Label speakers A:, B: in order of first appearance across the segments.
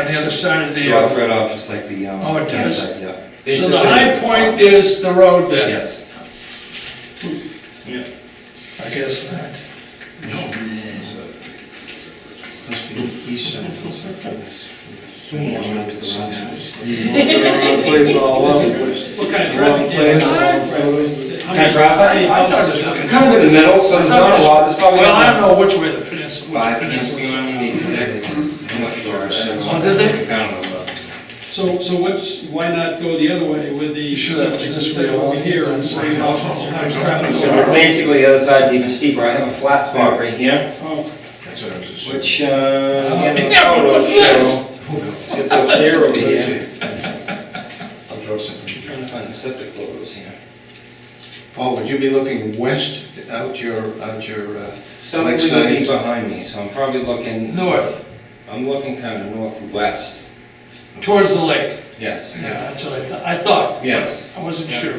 A: on the other side of the,
B: drops
A: uh,
B: right off, just like the, um...
A: Oh, it does?
B: campsite, Yeah.
A: so the high point is the road then?
B: Yes.
A: I guess not.
C: Must be the east side of the surface.
D: Plays all over.
E: What kind of traffic?
D: Plays all
E: jam?
D: over.
B: Kind of drop
E: Hey,
B: out?
A: I thought it was looking.
B: Kind of in the middle, so there's not a lot, there's probably...
A: Well, I don't know which way the peninsula,
B: Five,
A: which
B: can't
A: peninsula.
B: be on the exact, I'm not sure.
A: Oh, did they?
B: Kind of,
E: So, so what's, why not go the other way with the
A: You should have
E: septic
A: this way
E: system
A: along.
E: over here? and
A: That's-
E: bring it off on the high traffic?
B: uh, so Basically, the other side's even steeper, I have a flat spot right here,
E: Oh,
C: That's what I was assuming.
B: which, uh... yeah,
A: Yeah, but what's
B: photos show-
A: this?
B: It's up there over here.
C: I'll draw something.
B: Trying to find the septic logos here.
C: Paul, would you be looking west out your, out your uh,
B: Something would be
C: lakeside?
B: behind me, so I'm probably looking,
A: North,
B: I'm looking kind of northwest,
A: towards the lake.
B: yes,
A: Yeah, that's what I thought, I thought.
B: yes.
A: I wasn't sure.
B: Yeah.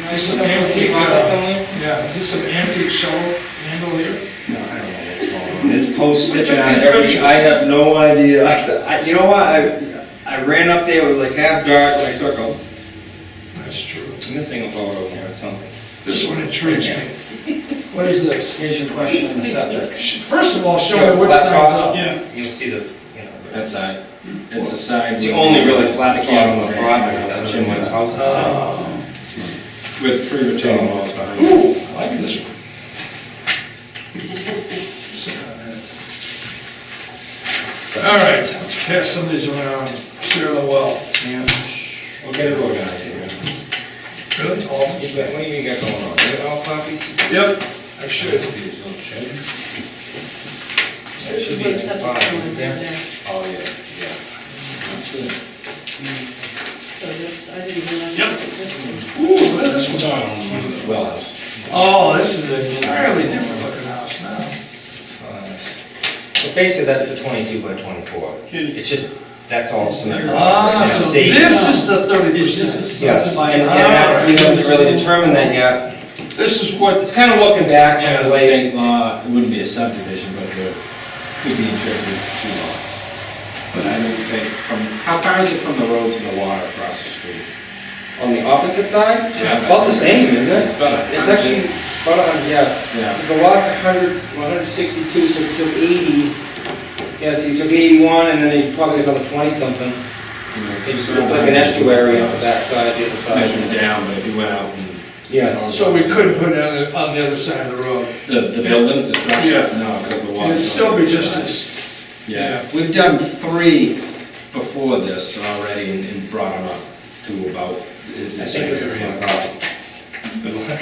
A: Is this some antique,
B: Rockets
A: uh,
B: on there?
A: yeah, is this some antique shovel handle here?
B: There's posts sticking out
A: these
B: every,
A: pictures?
B: I have no idea. I said, I- you know what, I, I ran up there, it was like half dark, and I took a,
A: That's true.
B: I'm missing a photo here or something.
A: This one intrigues me. What is this?
B: Here's your question on the subject.
A: Sh- First of all, show me which side's up.
E: yeah.
B: You'll see the, you know,
F: That side, it's the side.
B: it's the
F: with-
B: only really flat spot on the property, that's in my house.
F: With three retaining walls behind it.
A: Ooh, I like this one. Sit on that. All right, let's pass some of these around, share the wealth.
B: We'll get it all down here.
A: Really? All?
B: You got- What do you got going on? You got all copies?
A: Yep, I should.
B: That should be in the file, right there. Oh, yeah, yeah.
G: So that's, I didn't realize
A: Yep.
G: that's existing.
A: Ooh, look at this one's on.
B: Well, house.
A: Oh, this is an entirely different looking house now.
B: Well, Basically, that's the twenty-two by twenty-four. It's just, that's all cement.
A: Ah,
B: Yeah,
A: so
B: safety.
A: this is the thirty percent.
B: Yes, and and that's, we haven't really determined that yet.
A: This is what,
B: It's kind of looking back
F: Yeah,
B: and
F: the
B: relating.
F: state law, it wouldn't be a subdivision, but there could be interpreted as two lots. But I don't think, from, how far is it from the road to the water across the street?
B: On the opposite side?
F: Yeah.
B: About the same, isn't
F: It's
B: it?
F: about a
B: It's
F: hundred.
B: actually, about a hundred, yeah.
F: Yeah,
B: Because the lot's a hundred, one hundred sixty-two, so if you took eighty, yeah, so you took eighty-one, and then you probably another twenty-something.
F: you know,
B: It's it's like an estuary on the back side, the other
F: Measured
B: side.
F: down, but if you went out and,
B: Yes.
A: so we could put it on the, on the other side of the road.
F: the, the building, the structure,
A: Yeah.
F: no, because the water.
A: It'd still be just as,
F: Yeah, we've done three before this already and- and brought them up to about.
B: I think this is my problem. Good luck.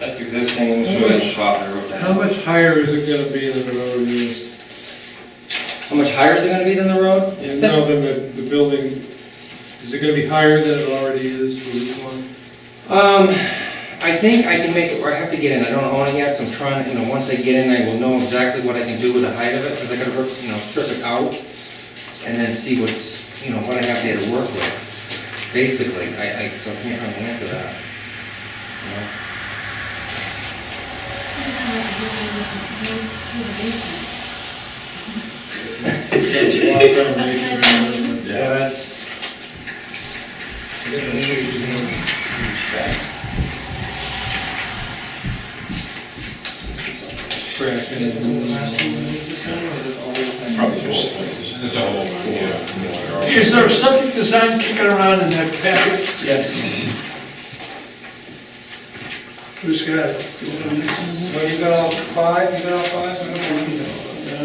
B: That's existing, I'm sure it's shot, I wrote
D: How
B: that.
D: much higher is it gonna be than the road is?
B: How much higher is it gonna be than the road? Six-
D: No, than the, the building, is it gonna be higher than it already is? Would you want-
B: Um, I think I can make it, where I have to get in, I don't own it yet, so I'm trying, to. you know, once I get in, I will know exactly what I can do with the height of it, because I gotta, work, you know, strip it out, and then see what's, you know, what I have there to work with, basically, I, I, so I can't really answer that. You know? Yeah, that's.
F: It's a whole, yeah.
A: is there something design kicking around in that package?
B: Yes.
A: Who's got it?
B: So you got all five, you got all five? I don't know, we can-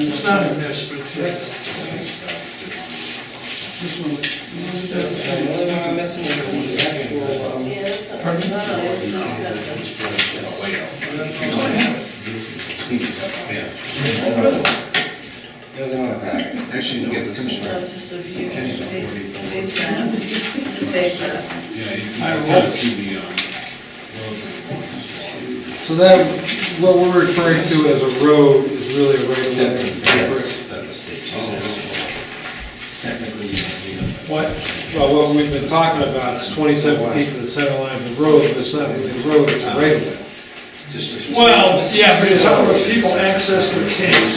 A: It's not in this, but it's.
B: The only one I'm missing is the actual, um,
G: Yeah, that's not, no, it's just got the.
B: the other one I have.
C: Actually, no, it comes
G: No, it's just a view, it's based, based on, it's just based on.
D: So that, what we're referring to as a road is really a right of way.
F: Yes, that the state just has. Technically, you don't need
D: What, well, what we've been talking about is twenty-seven feet to the center line of the road, but it's not really a road, it's a right of way.
C: Just-
A: Well, yeah, but it's how people access their caves.